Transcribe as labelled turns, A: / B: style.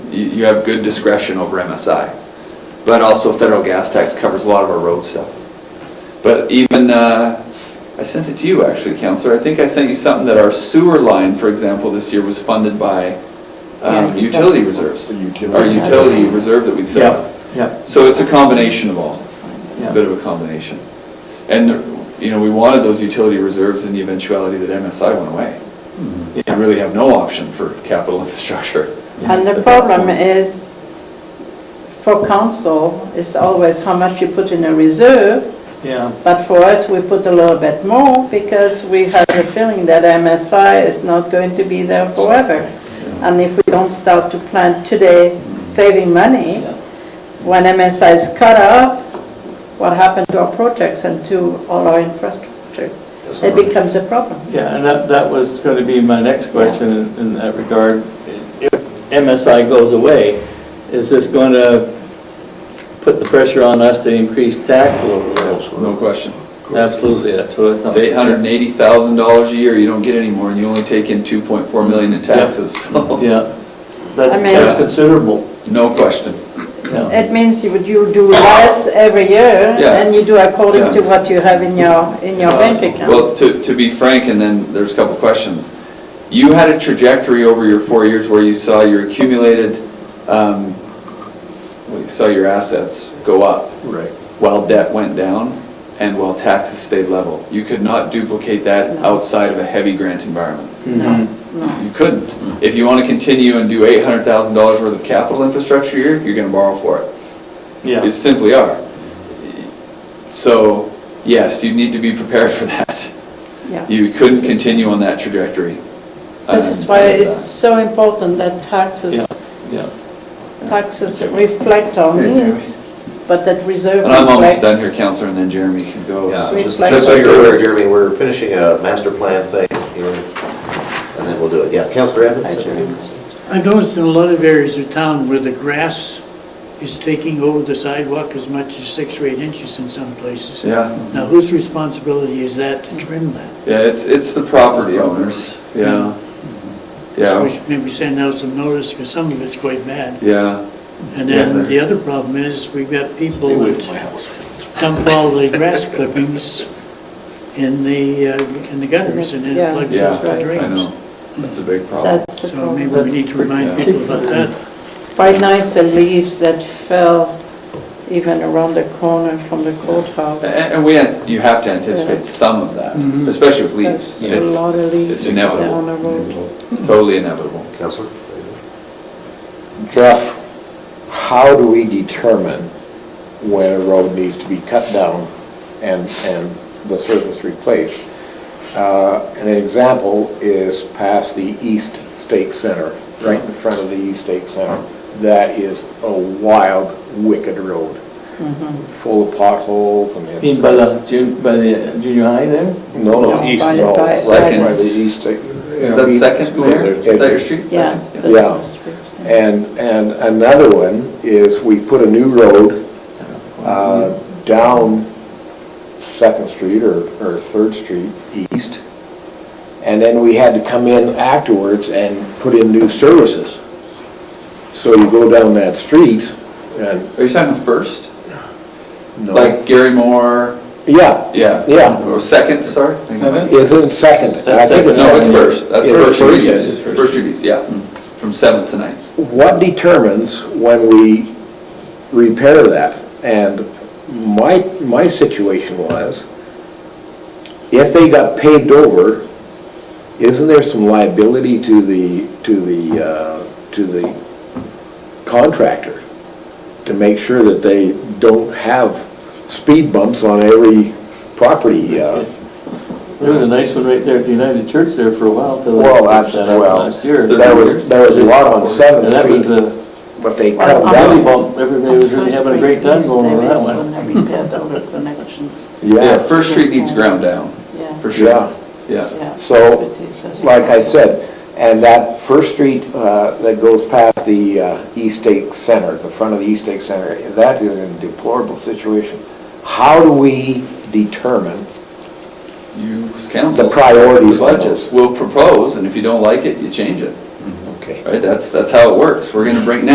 A: you, you have good discretion over MSI. But also federal gas tax covers a lot of our road stuff. But even, uh, I sent it to you actually, Counselor, I think I sent you something that our sewer line, for example, this year was funded by, um,
B: Yeah.
A: utility reserves.
C: The utility.
A: Our utility reserve that we set up.
B: Yep, yep.
A: So it's a combination of all. It's a
B: Yeah.
A: bit of a combination. And, you know, we wanted those utility reserves in the eventuality that MSI went away. We
B: Yeah.
A: really have no option for capital infrastructure.
D: And the
A: at that
D: problem
A: point.
D: is, for council, is always how much you put in a reserve,
B: Yeah,
D: but for us, we put a little bit more because we have the feeling that MSI is not going to be there forever. And if we don't start to plan today, saving money, when MSI is cut off, what happened to our projects and to all our infrastructure? It becomes a problem.
B: yeah, and that, that was going to be my next question in- in that regard. If MSI goes away, is this going to put the pressure on us to increase tax a little bit?
A: No question.
B: Absolutely, that's what I thought.
A: It's eight hundred and eighty thousand dollars a year, you don't get any more, and you only take in two point four million in taxes, so,
B: Yeah, that's,
D: I mean-
B: that's considerable,
A: no question.
B: yeah.
D: It means you would- you do less every year,
A: Yeah.
D: and you do according to
A: Yeah. Uh,
D: what you have in your, in your bank account.
A: Well, to, to be frank, and then there's a couple questions. You had a trajectory over your four years where you saw your accumulated, um, well, you saw your assets go up
C: Right.
A: while debt went down and while taxes stayed level. You could not duplicate that outside of a heavy grant environment.
B: Mhm.
A: You couldn't. If you want to continue and do eight hundred thousand dollars worth of capital infrastructure here, you're gonna borrow for it.
B: Yeah.
A: You simply are. So, yes, you need to be prepared for that.
D: Yeah.
A: You couldn't continue on that trajectory.
D: This is
A: Um,
D: why it's so important that
B: Yeah,
D: taxes,
B: yeah.
D: taxes reflect our needs, but that reserve
A: And I'm almost done
D: reflects.
A: here, Counselor, and then Jeremy can go.
E: Yeah,
A: So-
D: Sweet
E: just,
D: flag.
E: just so you're aware, Jeremy, we're finishing a master plan thing here, and then we'll do it. Yeah, Counselor Evans?
D: Hi, Jeremy.
F: I've noticed in a lot of areas of town where the grass is taking over the sidewalk as much as six or eight inches in some places.
A: Yeah,
F: Now, whose responsibility is that to trim that?
A: yeah, it's, it's the property owners, yeah.
E: Mm-hmm.
F: So we
A: Yeah,
F: should maybe send out some notice, because some of it's quite bad.
A: yeah,
F: And
A: Yeah.
F: then the other problem is, we've got people that dump all the grass clippings in the, uh, in the gutters, and
D: Yeah.
F: it plugs
A: yeah,
F: up the
A: I know.
F: drains.
A: That's a big problem.
D: That's a
F: So maybe
D: problem.
F: we need to remind
A: Yeah.
F: people about that.
D: Right now, it's the leaves that fell even around the corner from the courthouse.
A: A- And, we, an- you have to anticipate some of that, especially with leaves.
D: There's a
A: It's
D: lot of leaves
A: it's inevitable. Mm-hmm.
D: on the road.
A: totally inevitable.
E: Counselor?
C: Jeff, how do we determine when a road needs to be cut down and, and the surface replaced? Uh, An example is past the East State Center, right in front of the East State Center. That is a wild, wicked road,
D: Mm-hmm.
C: full of potholes and. it's-
B: Being by the, jun- by the junior high there?
C: No, no,
D: No,
C: East,
D: by-
C: no,
D: by-
C: right
A: Second.
C: by the East State.
A: Is that second school
C: school?
A: there? Is that your street?
D: Yeah.
A: Second?
D: that's
C: Yeah.
D: the street.
C: And, and another one is we put a new road uh, down Second Street or, or Third Street East. And then we had to come in afterwards and put in new services. So you go down that street and,
A: Are you talking first?
C: no,
A: Like Gary Moore,
C: yeah,
A: yeah.
C: Yeah.
A: Or second, sorry?
C: isn't second. I think
A: No, it's
C: second.
A: first, that's
C: It's
A: first
C: first?
A: street east, first Mm. street east, yeah, from seventh to ninth.
C: what determines when we repair that? And my, my situation was, if they got paved over, isn't there some liability to the, to the, uh, to the contractor to make sure that they don't have speed bumps on every property? uh,
B: There was a nice one right there at the United Church there for a while till
C: Well,
B: they
C: that's,
B: fixed that up
C: well,
B: last year.
C: there was, there was a lot on
B: And
C: Seventh
B: that was
C: Street,
B: a
C: but they
D: Well,
C: cut
D: I'm-
B: rally
C: down.
B: bump, everybody was really having a great time going over that one.
D: There is one repaired over connections,
A: Yeah, first street needs ground down,
D: yeah.
A: for
C: Yeah.
A: sure, yeah.
D: yeah.
C: So,
D: It is, as you
C: like I
D: know.
C: said, and that First Street uh, that goes past the uh, East State Center, the front of the East State Center, that is in a deplorable situation. How do we determine?
A: You, as council.
C: The priorities of
A: Budget,
C: those.
A: we'll propose, and if you don't like it, you change it,
C: Okay.
A: right? That's, that's how it works, we're gonna bring,